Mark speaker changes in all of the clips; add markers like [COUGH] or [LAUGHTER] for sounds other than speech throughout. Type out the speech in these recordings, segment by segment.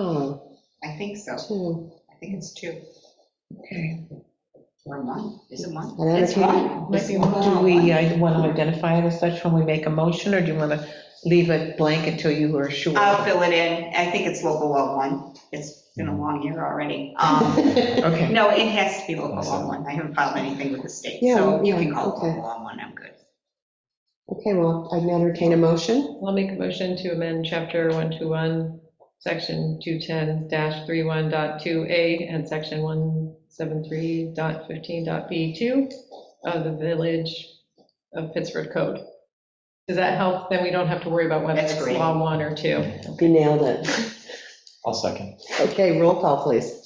Speaker 1: Oh,
Speaker 2: I think so.
Speaker 1: two,
Speaker 2: I think it's two
Speaker 1: okay.
Speaker 2: or one. Is it one?
Speaker 1: I'd
Speaker 2: It's
Speaker 1: entertain-
Speaker 2: one. Might be one.
Speaker 1: Do we uh, want to identify it as such when we make a motion, or do you want to leave it blank until you are sure? [LAUGHS]
Speaker 2: I'll fill it in. I think it's local law one. It's been a long year already. Um,
Speaker 1: Mm. Okay.
Speaker 2: No, it has to be local law one. I haven't filed anything with the state,
Speaker 1: Yeah,
Speaker 2: so you
Speaker 1: yeah,
Speaker 2: can call it
Speaker 1: okay.
Speaker 2: local law one. I'm good.
Speaker 1: Okay, well, I'd entertain a motion.
Speaker 3: I'll make a motion to amend chapter 121, section 210-31.2A and section 173.15.B2 of the Village of Pittsford Code. Does that help? Then we don't have to worry about whether
Speaker 2: That's
Speaker 3: it's
Speaker 2: great.
Speaker 3: law one or two.
Speaker 1: You nailed it.
Speaker 4: I'll second.
Speaker 1: Okay, roll call, please.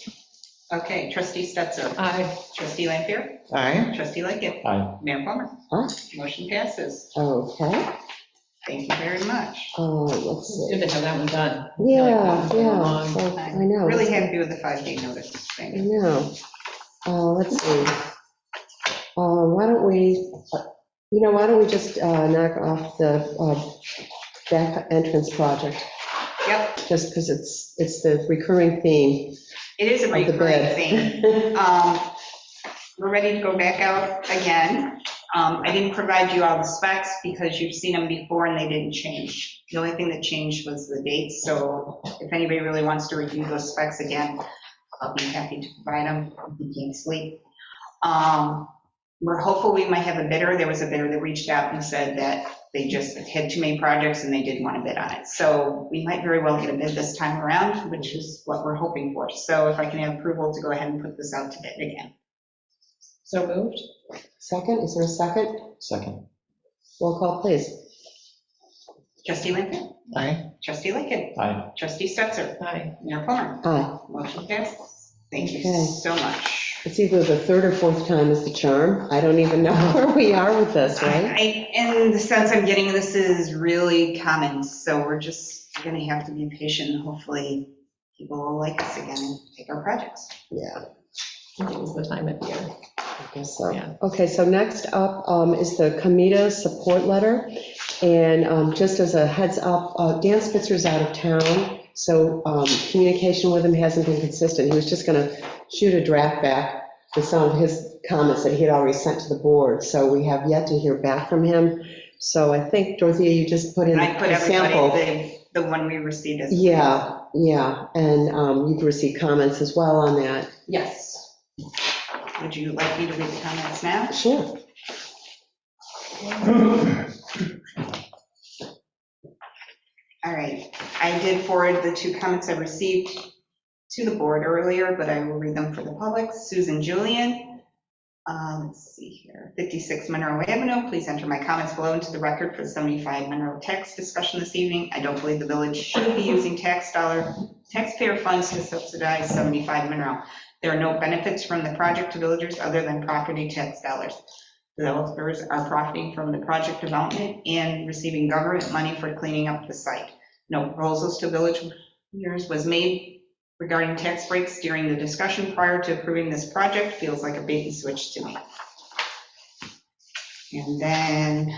Speaker 2: Okay, trustee Stetser,
Speaker 3: Aye.
Speaker 2: trustee Lampier,
Speaker 1: Aye.
Speaker 2: trustee Lickett,
Speaker 4: Aye.
Speaker 2: Mayor Plummer.
Speaker 1: Aye.
Speaker 2: Motion passes.
Speaker 1: Okay,
Speaker 2: Thank you very much.
Speaker 1: uh, let's see.
Speaker 3: Good to have that one done.
Speaker 1: Yeah, yeah, so, I know.
Speaker 2: Really happy with the five-day notice
Speaker 1: I
Speaker 2: thing.
Speaker 1: know. Uh, let's see. Uh, why don't we, uh, you know, why don't we just uh, knock off the uh, back entrance project?
Speaker 2: Yep,
Speaker 1: just because it's, it's the recurring theme
Speaker 2: it is a
Speaker 1: of the
Speaker 2: recurring thing.
Speaker 1: bid.
Speaker 2: Um, We're ready to go back out again. Um, I didn't provide you all the specs because you've seen them before and they didn't change. The only thing that changed was the dates, so if anybody really wants to review those specs again, I'll be happy to provide them if you can't sleep. Um, We're hopeful we might have a bidder. There was a bidder that reached out and said that they just had too many projects and they didn't want to bid on it. So we might very well get a bid this time around, which is what we're hoping for. So if I can have approval to go ahead and put this out to bid again.
Speaker 3: So moved?
Speaker 1: [LAUGHS] Second, is there a second?
Speaker 4: Second.
Speaker 1: Roll call, please.
Speaker 2: Trustee Lampier,
Speaker 1: Aye.
Speaker 2: trustee Lickett,
Speaker 4: Aye.
Speaker 2: trustee Stetser,
Speaker 3: Aye.
Speaker 2: Mayor Plummer.
Speaker 1: Aye.
Speaker 2: Motion passes. Thank you
Speaker 1: Okay.
Speaker 2: so much.
Speaker 1: It's either the third or fourth time is the charm. I don't even know [LAUGHS] where we are with this,
Speaker 2: [LAUGHS]
Speaker 1: right?
Speaker 2: I, in the sense I'm getting, this is really common, so we're just gonna have to be patient. Hopefully, people will like us again and take our projects.
Speaker 1: Yeah,
Speaker 3: I think It was the time of year.
Speaker 1: I guess so.
Speaker 3: Yeah.
Speaker 1: Okay, so next up um, is the Comita support letter. And um, just as a heads up, uh, Dan Spitzer's out of town, so um, communication with him hasn't been consistent. He was just going to shoot a draft back with some of his comments that he had already sent to the board. So we have yet to hear back from him. So I think, Dorothea, you just put in
Speaker 2: I put
Speaker 1: a sample.
Speaker 2: everybody, the, the one we received as.
Speaker 1: Yeah, yeah, and um, you've received comments as well on that.
Speaker 2: Yes. Would you like me to read the comments now?
Speaker 1: Sure.
Speaker 2: All right, I did forward the two comments I received to the board earlier, but I will read them for the public. Susan Julian, uh, let's see here, 56 Monroe Avenue, please enter my comments below into the record for the 75 Monroe tax discussion this evening. I don't believe the village should be using tax dollar, taxpayer funds to subsidize 75 Monroe. There are no benefits from the project to villagers other than property tax dollars. Developers are profiting from the project development and receiving government money for cleaning up the site. No proposals to village years was made regarding tax breaks during the discussion prior to approving this project. Feels like a bait and switch to me. And then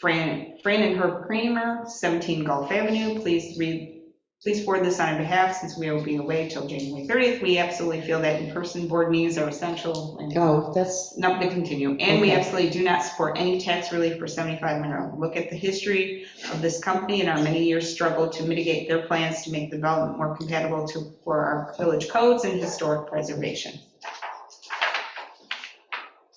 Speaker 2: Fran, Fran and Herb Kramer, 17 Gulf Avenue, please read, please forward this on our behalf since we will be away till January 30th. We absolutely feel that in-person board meetings are essential and
Speaker 1: Oh, that's,
Speaker 2: Nope, they continue. And we
Speaker 1: Okay.
Speaker 2: absolutely do not support any tax relief for 75 Monroe. Look at the history of this company and our many years struggle to mitigate their plans to make development more compatible to, for our village codes and historic preservation.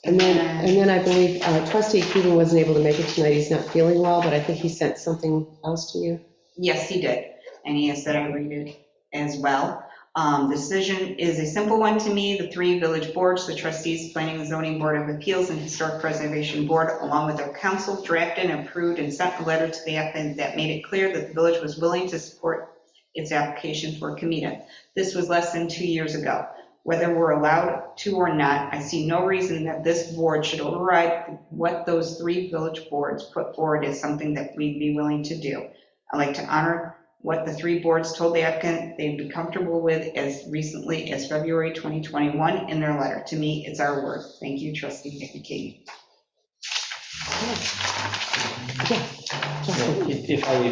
Speaker 1: and then, and then I believe uh, trustee Keating wasn't able to make it tonight. He's not feeling well, but I think he sent something else to you.
Speaker 2: Yes, he did, and he has said I read it as well. Um, The Decision is a simple one to me. The three village boards, the trustees, planning and zoning board of appeals, and historic preservation board, along with their council, drafted and approved and sent a letter to the applicant that made it clear that the village was willing to support its application for Comita. This was less than two years ago. Whether we're allowed to or not, I see no reason that this board should override what those three village boards put forward as something that we'd be willing to do. I'd like to honor what the three boards told the applicant they'd be comfortable with as recently as February 2021 in their letter. To me, it's our work. Thank you, trustee Nikki Katie.
Speaker 1: Justin.
Speaker 4: If if I leave